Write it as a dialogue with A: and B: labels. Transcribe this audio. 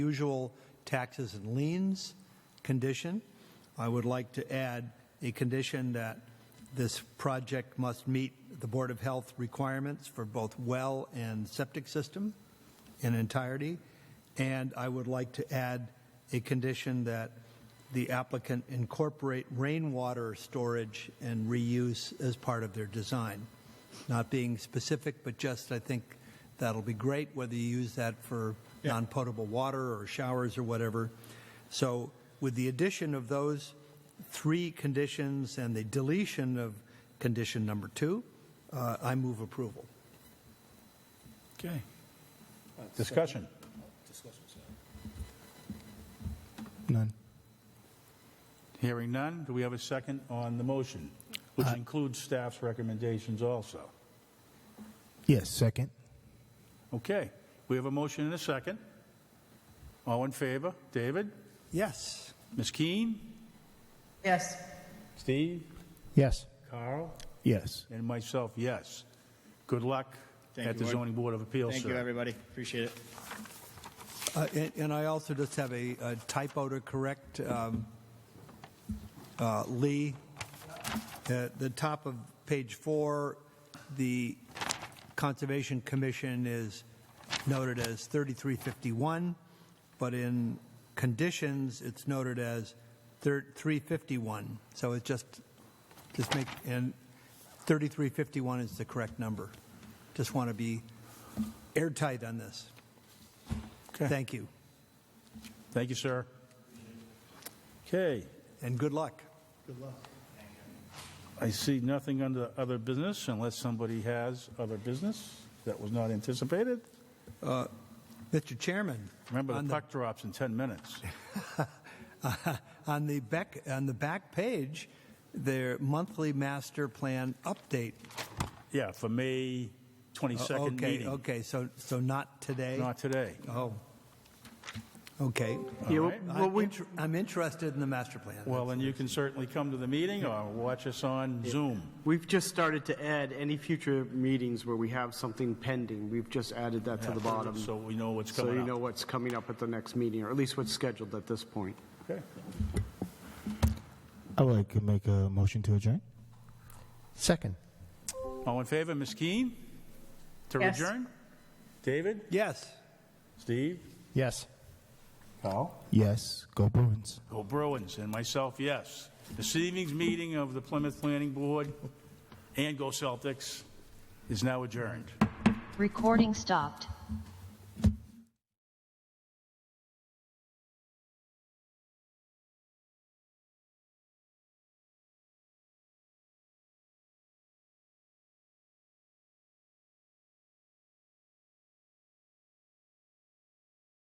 A: usual taxes and liens condition. I would like to add a condition that this project must meet the Board of Health requirements for both well and septic system in entirety. And I would like to add a condition that the applicant incorporate rainwater storage and reuse as part of their design. Not being specific, but just, I think that'll be great, whether you use that for non-potable water or showers or whatever. So with the addition of those three conditions and the deletion of condition number two, uh, I move approval.
B: Okay. Discussion.
C: None.
B: Hearing none, do we have a second on the motion, which includes staff's recommendations also?
C: Yes, second.
B: Okay, we have a motion and a second. All in favor? David?
A: Yes.
B: Ms. Keen?
D: Yes.
B: Steve?
C: Yes.
B: Carl?
C: Yes.
B: And myself, yes. Good luck
E: Thank
B: at
E: you,
B: the
E: Lord.
B: zoning board of appeals,
E: Thank you,
B: sir.
E: everybody. Appreciate it.
A: Uh, And and I also just have a a typo to correct. um, uh, Lee, at the top of page four, the Conservation Commission is noted as 3351, but in conditions, it's noted as thir- 351. So it just, just make, and 3351 is the correct number. Just want to be airtight on this. Thank you,
B: Thank you, sir. Okay,
A: and good luck.
B: I see nothing under other business unless somebody has other business that was not anticipated.
A: Mr. Chairman,
B: Remember,
A: on the,
B: the puck drops in 10 minutes.
A: on the back, on the back page, their monthly master plan update. Uh,
B: Yeah, for May 22nd
A: okay,
B: meeting,
A: okay, so so not today.
B: not today.
A: oh, okay. Uh,
B: Yeah, well- right.
A: I'm, inter- I'm interested in the master plan.
B: Well, then you can certainly come to the meeting or watch us on Zoom.
F: We've just started to add any future meetings where we have something pending. We've just added that to the bottom.
B: So we know what's
F: So you
B: coming
F: know
B: up.
F: what's coming up at the next meeting, or at least what's scheduled at this point.
B: Okay.
C: I would like to make a motion to adjourn. Second.
B: All in favor, Ms. Keen? To
D: Yes.
B: adjourn? David?
A: yes.
B: Steve?
C: Yes.
B: Carl?
C: Yes. Go Bruins.
B: Go Oh, Bruins, and myself, yes. This evening's meeting of the Plymouth Planning Board and Go Celtics is now adjourned.
G: Recording stopped.